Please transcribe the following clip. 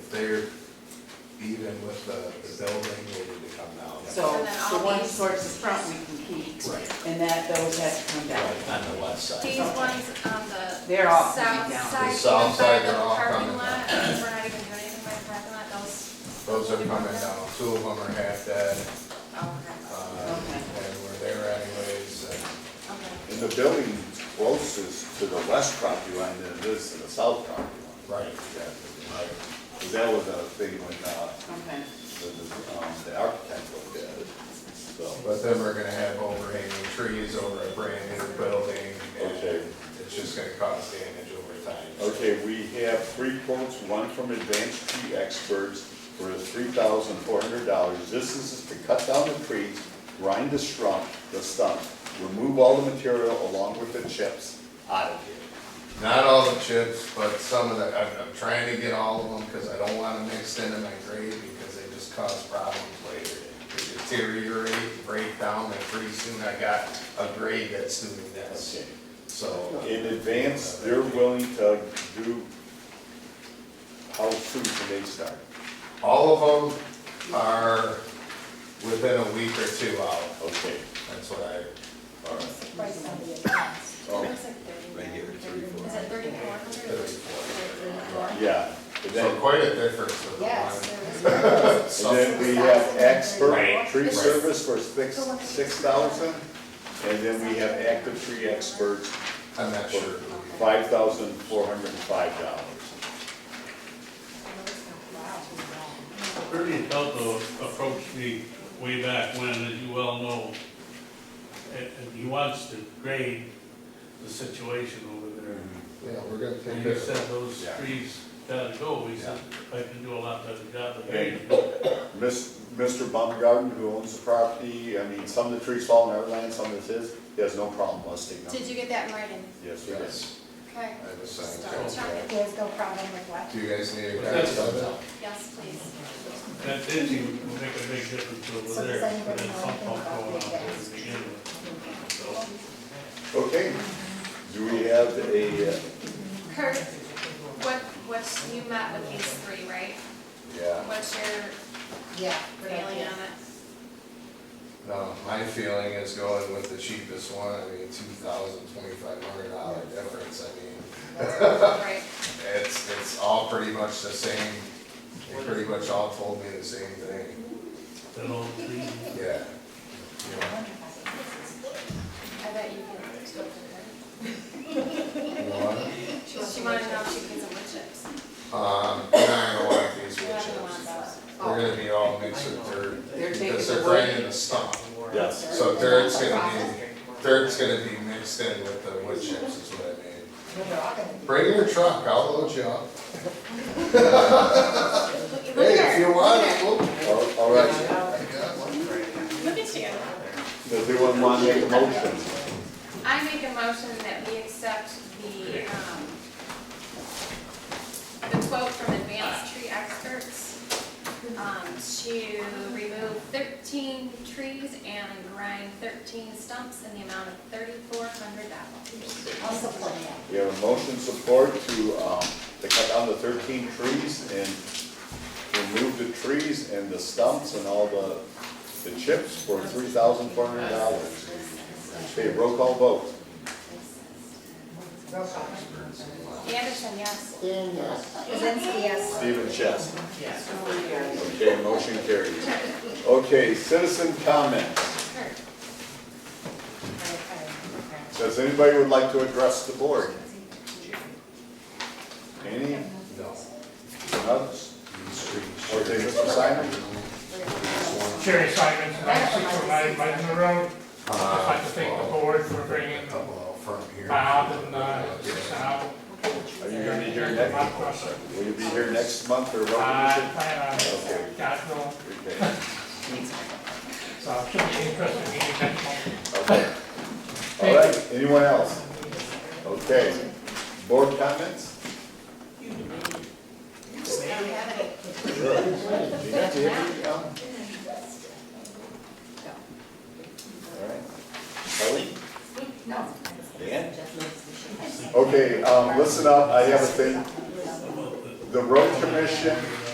there even with the, the building needed to come down. So And then all the ones these- towards the front we can keep, Right, and that, those have to come down. right, on the west side. These Okay. ones on the They're all south coming down. side, The south even by side, the they're all parking coming lot, down. because we're not even doing anything by the parking lot, those. Those are will be coming down, two of them are half dead, oh, Okay, uh, and we're there anyways, and okay. And the building closest to the west property line than it is to the south property Right. line. Yeah, right. 'Cause that was a thing when, uh, Okay. the, the, um, the architect looked at it, so. But then we're gonna have overhanging trees over a brand new building, Okay. and it's just gonna cause damage over time. Okay, we have three quotes, one from Advanced Tree Experts for three thousand four hundred dollars. This is to cut down the trees, grind the stump, the stump, remove all the material along with the chips out of here. Not all the chips, but some of the, I'm, I'm trying to get all of them, cause I don't want them mixed into my grade, because they just cause problems later. They deteriorate, break down, and pretty soon I got a grade that's doing this, Okay. so. In advance, they're willing to do, how soon can they start? All of them are within a week or two out, Okay, that's what I, or Oh. Looks like thirty. Right here, Is it 34. thirty-four hundred? Thirty-four. yeah. And So then, quite a difference with the Yes, one. there was one. So- and then we have expert Right. tree Right. service for six, six thousand. And then we have active tree experts I'm not for sure. five thousand four hundred and five dollars. Ernie Pelto approached me way back when, as you well know, and and he wants to grade the situation over there. Yeah, we're gonna And take he it. said those Mm-hmm. Yeah. trees gotta go, he said, I can do a lot better job of And grading. Miss, Mr. Baumgarten, who owns the property, I mean, some of the trees fall in our land, some of it's his, he has no problem listing them. Did you get that in writing? Yes, he does. Yes, Okay. I have a signed Start contract. checking. There's no problem with what? Do you guys need a But that's- copy? Yes, please. That ditching will make a big difference So over does there, anybody and then know some anything pump about going the on there gas? to begin with. So, Okay, do we have a, uh, Kurt, what, what's, you met with these three, right? Yeah, What's your Yeah. feeling on it? no, Uh, my feeling is going with the cheapest one, I mean, two thousand, twenty-five hundred dollar difference, I mean, Right, it's, it's all pretty much the same. They pretty much all told me the same thing, Then all the trees, yeah. I bet you can still do You know what? it. She she wanted to know if she can get some wood chips. Um, we're not gonna want these wood You're not gonna want chips. that. They're gonna be all mixed with dirt, They're taking because the they're wood. right in the stump. yes? So dirt's gonna be, dirt's gonna be mixed in with the wood chips is what I mean. Well, they're all gonna be. Bring your truck, I'll load you up. Look at Hey, if her, you look want, at her. we'll. All all right, Look at you. does anyone want to make a motion? I make a motion that we accept the, um, the quote from Advanced Tree Experts, um, to remove thirteen trees and grind thirteen stumps in the amount of thirty-four hundred dollars. I'll support that. We have a motion support to, um, to cut down the thirteen trees and remove the trees and the stumps and all the, the chips for three thousand four hundred dollars. Okay, roll call vote. Roll call. Anderson, yes. Then, yes. Kuzinski, yes. Stephen Chess. Okay, motion carries. Okay, citizen comments. Kurt, Does anybody would like to address the board? Any? No. Others? Okay, Mr. Simon? Jerry Simons, and I supervise Lebanon Road. I'd like to thank the board for bringing Uh, Couple out front here. Bob and uh, Sal. Are you gonna be here My next, question. will you be here next month or I what? plan Okay. on uh, Godville, Okay. so it uh, should be an interesting meeting next month. Okay. All right, anyone else? Okay, board comments? I don't have any. Gina, do you have any, um? All right. Kelly? No. Dan? Okay, um, listen up, I have a thing. The road commission